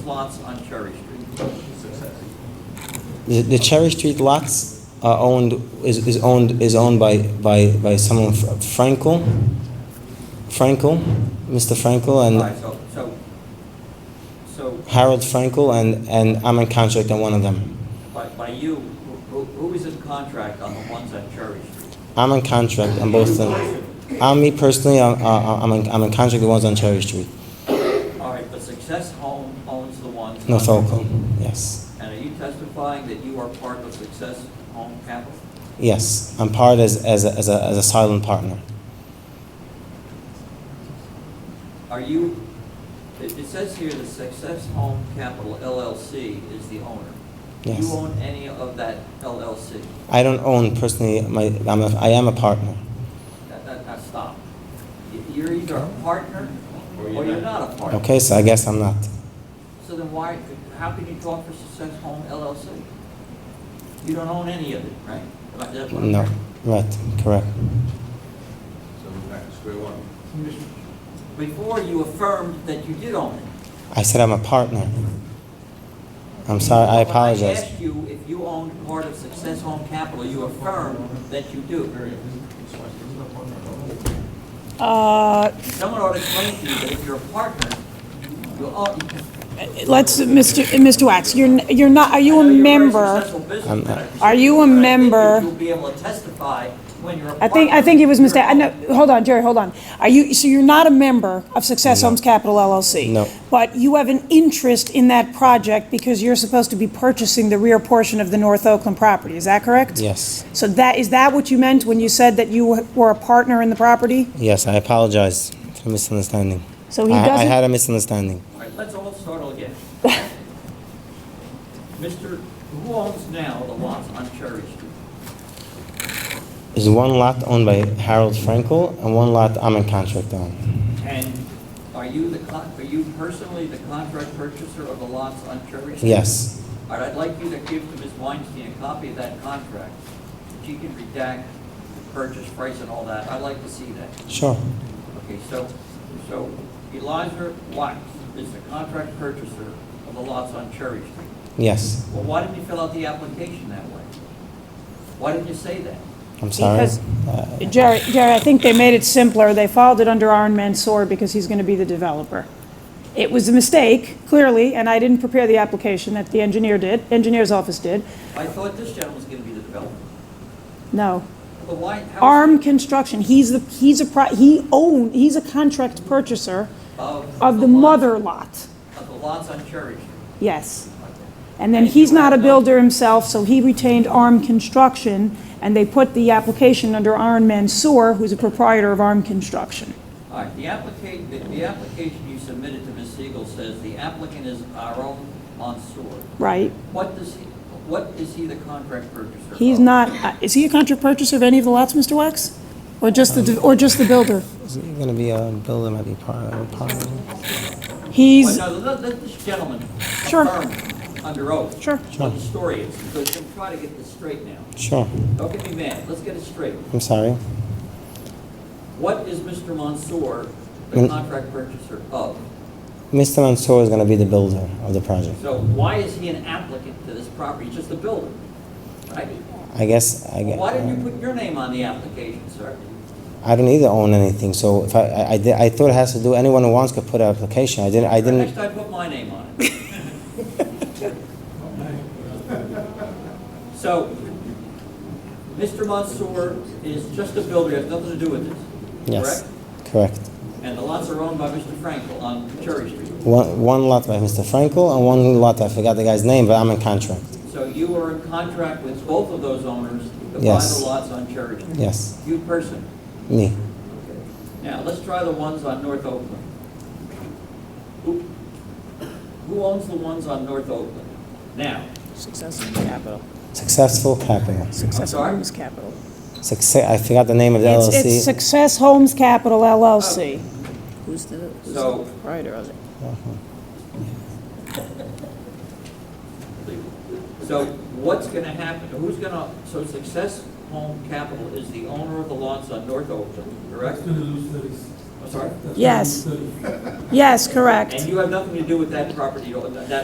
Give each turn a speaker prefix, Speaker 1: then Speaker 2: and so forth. Speaker 1: lots on Cherry Street.
Speaker 2: The, the Cherry Street lots are owned, is, is owned, is owned by, by, by someone, Fr- Frankel? Frankel, Mr. Frankel
Speaker 1: All
Speaker 2: and
Speaker 1: right, so, so, so
Speaker 2: Harold Frankel and, and I'm in contract on one of them.
Speaker 1: by, by you, who, who- who is in contract on the ones on Cherry Street?
Speaker 2: I'm in contract on both of them. I'm me personally, I, I, I'm in, I'm in contract with the ones on Cherry Street,
Speaker 1: All right, but Success Home owns the ones.
Speaker 2: North
Speaker 1: on-
Speaker 2: Oakland, yes.
Speaker 1: And are you testifying that you are part of Success Home Capital?
Speaker 2: Yes, I'm part as, as, a- as a, as a silent partner.
Speaker 1: Are you, it, it says here that Success Home Capital LLC is the owner. Do
Speaker 2: Yes.
Speaker 1: you own any of that LLC?
Speaker 2: I don't own personally, my, I'm a, I am a partner.
Speaker 1: That, that, now stop. You- You're either a partner or you're not a partner.
Speaker 2: Okay, so I guess I'm not.
Speaker 1: So then why, how can you talk for Success Home LLC? You don't own any of it, right? Am I- that's what I'm
Speaker 2: No,
Speaker 1: hearing.
Speaker 2: right, correct.
Speaker 3: So we're back to square one.
Speaker 1: Before you affirmed that you did own it.
Speaker 2: I said I'm a partner. I'm sorry, I
Speaker 1: When I
Speaker 2: apologize.
Speaker 1: asked you if you owned part of Success Home Capital, you affirmed that you do.
Speaker 4: Uh,
Speaker 1: Someone ought to explain to you that if you're a partner, you own.
Speaker 4: Let's, Mr. Mr. Wax, you're, n- you're not, are you a
Speaker 1: I know you're very
Speaker 4: member?
Speaker 1: successful businessman.
Speaker 2: I'm not.
Speaker 4: Are you
Speaker 1: But I
Speaker 4: a
Speaker 1: think that
Speaker 4: member-
Speaker 1: You'll be able to testify when you're a partner.
Speaker 4: I think, I think he was
Speaker 1: You're
Speaker 4: mistaken, no, hold on, Jerry, hold on. Are you, so you're not a member of Success
Speaker 2: No.
Speaker 4: Homes Capital LLC?
Speaker 2: No.
Speaker 4: But you have an interest in that project because you're supposed to be purchasing the rear portion of the North Oakland property, is that correct?
Speaker 2: Yes,
Speaker 4: So that, is that what you meant when you said that you were a partner in the property?
Speaker 2: yes, I apologize for misunderstanding.
Speaker 4: So he
Speaker 2: I- I
Speaker 4: doesn't-
Speaker 2: had a misunderstanding.
Speaker 1: All right, let's all start all again. Mr., who owns now the lots on Cherry Street?
Speaker 2: There's one lot owned by Harold Frankel and one lot I'm in contract on.
Speaker 1: And are you the, con- are you personally the contract purchaser of the lots on Cherry Street?
Speaker 2: Yes,
Speaker 1: All right, I'd like you to give to Ms. Weinstein a copy of that contract. She can redact the purchase price and all that. I'd like to see that.
Speaker 2: sure,
Speaker 1: Okay, so, so Eliza Wax is the contract purchaser of the lots on Cherry Street.
Speaker 2: yes,
Speaker 1: Well, why didn't you fill out the application that way? Why didn't you say that?
Speaker 2: I'm sorry.
Speaker 4: Because-
Speaker 2: Uh,
Speaker 4: Jerry, Jerry, I think they made it simpler. They filed it under Aaron Mansour because he's going to be the developer. It was a mistake, clearly, and I didn't prepare the application that the engineer did, engineer's office did.
Speaker 1: I thought this gentleman was gonna be the developer.
Speaker 4: No.
Speaker 1: But why? how is-
Speaker 4: Arm Construction, he's the, he's a, pro- he own, he's a contract purchaser of the
Speaker 1: lots-
Speaker 4: mother lot.
Speaker 1: Of the lots on Cherry Street.
Speaker 4: Yes. And then he's not a builder himself, so he retained Arm Construction, and they put the application under Aaron Mansour, who's a proprietor of Arm Construction.
Speaker 1: All right, the application, the, the application you submitted to Ms. Siegel says the applicant is Aaron Mansour.
Speaker 4: Right?
Speaker 1: What does he, what is he the contract purchaser of?
Speaker 4: He's not, uh, is he a contract purchaser of any of the lots, Mr. Wax? Or just the, or just the builder?
Speaker 2: Is it gonna be a builder, might be part of a partner?
Speaker 4: He's,
Speaker 1: Well, no, let, let this gentleman
Speaker 4: Sure.
Speaker 1: affirm under oath.
Speaker 4: Sure.
Speaker 1: What the story is, because I'm trying to get this straight now.
Speaker 2: Sure,
Speaker 1: Don't get me mad, let's get it straight.
Speaker 2: I'm sorry.
Speaker 1: What is Mr. Mansour the
Speaker 2: Mm.
Speaker 1: contract purchaser of?
Speaker 2: Mr. Mansour is gonna be the builder of the project.
Speaker 1: So why is he an applicant to this property, He's just a builder, right?
Speaker 2: I guess, I
Speaker 1: Well,
Speaker 2: guess.
Speaker 1: Why didn't you put your name on the application, sir?
Speaker 2: I don't either own anything, so if I, I, I did- I thought it has to do, anyone who wants could put an application, I didn't, I
Speaker 1: Next
Speaker 2: didn't,
Speaker 1: time, put my name on it. So, Mr. Mansour is just a builder, has nothing to do with this,
Speaker 2: yes,
Speaker 1: correct?
Speaker 2: correct.
Speaker 1: And the lots are owned by Mr. Frankel on Cherry Street.
Speaker 2: One, one lot by Mr. Frankel and one lot, I forgot the guy's name, but I'm in contract,
Speaker 1: So you are in contract with both of those owners to buy
Speaker 2: Yes.
Speaker 1: the lots on Cherry Street?
Speaker 2: yes,
Speaker 1: You person.
Speaker 2: me.
Speaker 1: Now, let's try the ones on North Oakland. Who who owns the ones on North Oakland? Now,
Speaker 4: Successful capital.
Speaker 2: Successful Capital.
Speaker 4: Successful
Speaker 1: sorry?
Speaker 4: Homes Capital.
Speaker 2: Success, I forgot the name of the
Speaker 4: It's, it's
Speaker 2: LLC.
Speaker 4: Success Homes Capital LLC.
Speaker 5: Who's the, who's
Speaker 1: So-
Speaker 5: the proprietor of it?
Speaker 1: so what's going to happen? Who's going to, so Success Home Capital is the owner of the lots on North Oakland, correct? I'm sorry?
Speaker 4: Yes. Yes, correct.
Speaker 1: And you have nothing to do with that property, that